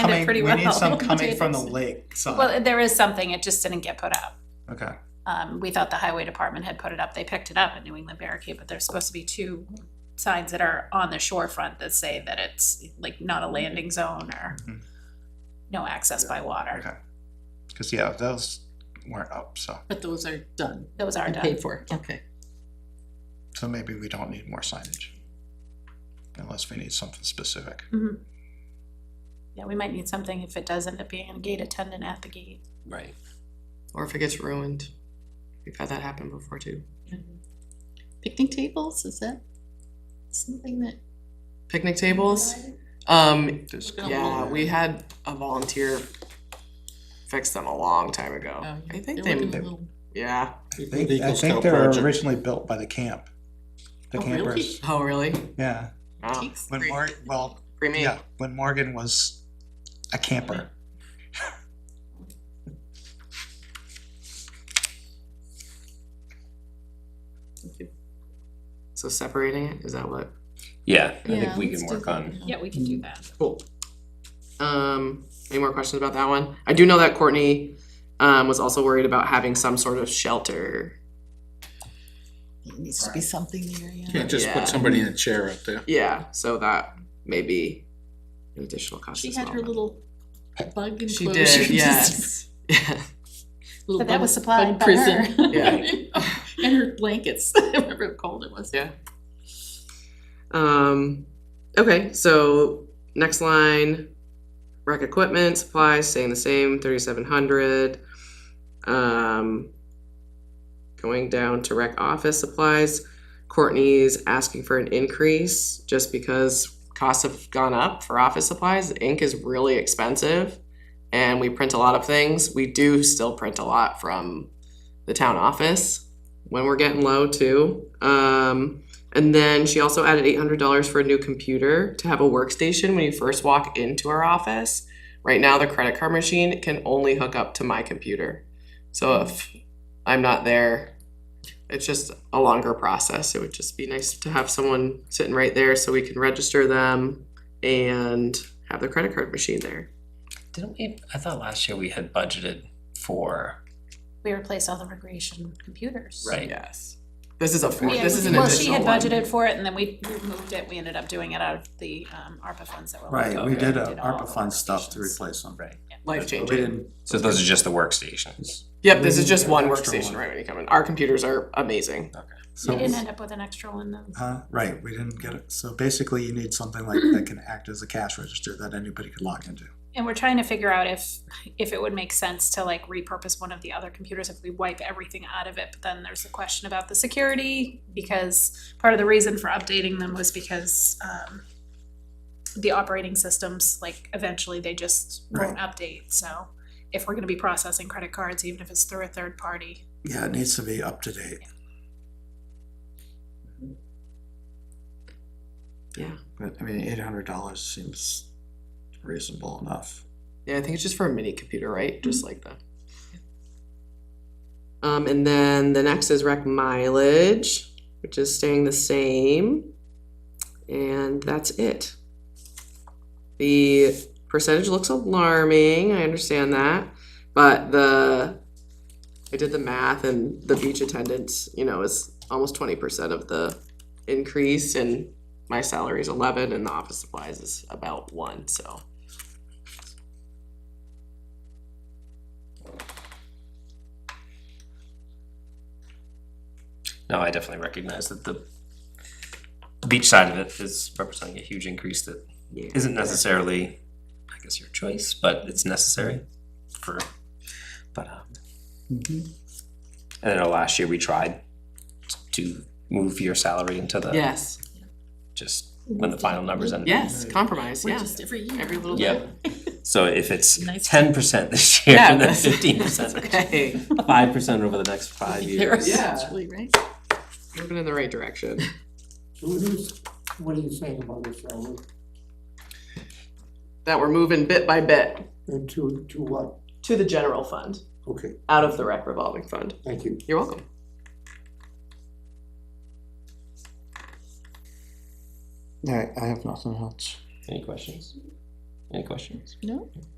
planned it coming, pretty we well. need some coming from the Jesus. lake Well, side. there is something, it just didn't get put up. Okay, Um, we thought the highway department had put it up, they picked it up at New England Barricade, but there's supposed to be two signs that are on the shorefront that say that it's like not a landing zone or Mhm. no access by water, okay. Cause yeah, those weren't up, so, But those are done those are and done. paid for, okay. so maybe we don't need more signage. Unless we need something specific. Mm-hmm. Yeah, we might need something if it does end up being a gate attendant at the gate. Right. Or if it gets ruined, we've had that happen before too. Picnic tables, is that something that? Picnic tables, um, There's- yeah, we had a volunteer fix them a long time Oh, ago. Oh, I think they, yeah, I think, I Eagle think Scout they were project. originally built by the camp. The Oh, really? campers, oh, really? yeah. Wow. When Mor- well, Creamy. yeah, when Morgan was a camper. So separating it, is that what? Yeah, I think we can work on, Yeah, we can do that. Cool. Um, any more questions about that one? I do know that Courtney um, was also worried about having some sort of shelter. It needs to be something there, yeah. can't just Yeah. put somebody in a chair up there. Yeah, so that may be an additional cost She as had well, her but- little bug enclosure. She did, just- yes. Yeah. little But that bug- was supplied bug by prison. Yeah. And her blankets, remember how cold it was? Yeah. Um, okay, so next line, rec equipment, supplies, staying the same, thirty-seven hundred. Um, going down to rec office supplies, Courtney's asking for an increase just because costs have gone up for office supplies. Ink is really expensive and we print a lot of things. We do still print a lot from the town office when we're getting low too. Um, and then she also added eight hundred dollars for a new computer to have a workstation when you first walk into our office. Right now, the credit card machine can only hook up to my computer. So if I'm not there, it's just a longer process. It would just be nice to have someone sitting right there so we can register them and have the credit card machine there. Didn't we, I thought last year we had budgeted for, We replaced all the recreation computers. right? Yes. This is a four, Yeah, this is an well, she additional had one. budgeted for it and then we moved it, we ended up doing it out of the um ARPA funds that were. left Right, over. we did all the workstations. replace them. Right. Life But changing. So those are just the workstations. Yep, this is We just need one an extra workstation one. right when you come in. Our computers are amazing. We So, didn't end up with an extra one though. uh, right, we didn't get it. So basically you need something like that can act as a cash register that anybody could log into. And we're trying to figure out if, if it would make sense to like repurpose one of the other computers if we wipe everything out of it. But then there's the question about the security, because part of the reason for updating them was because, um, the operating systems, like eventually they just won't update, so if we're gonna be processing credit cards, even if it's through a third party, Yeah, it needs to be up to date. Yeah. But I mean, eight hundred dollars seems reasonable enough. Yeah, I think it's just for a mini computer, right? Just like that. Um, and then the next is rec mileage, which is staying the same. And that's it. The percentage looks alarming. I understand that. But the, I did the math and the beach attendance, you know, is almost 20% of the increase. And my salary is 11 and the office supplies is about one. So. No, I definitely recognize that the beach side of it is representing a huge increase that Yeah. isn't necessarily, I guess, your choice, but it's necessary for, but, um, Mm-hmm. and I know last year we tried to move your salary into the, Yes, just when the final numbers ended. yes, compromise, We yeah. just every year. Every little Yeah. So if it's Nice. ten percent this year and then Yeah. fifteen percent, Okay, five percent over the next five years. Yeah. Actually, right? moving in the right direction. What is, what are you saying about this, Alan? That we're moving bit by bit And to, to what? to the general fund, Okay, out of the rec revolving fund. thank you. You're welcome. Alright, I have nothing else. Any questions? Any questions? No?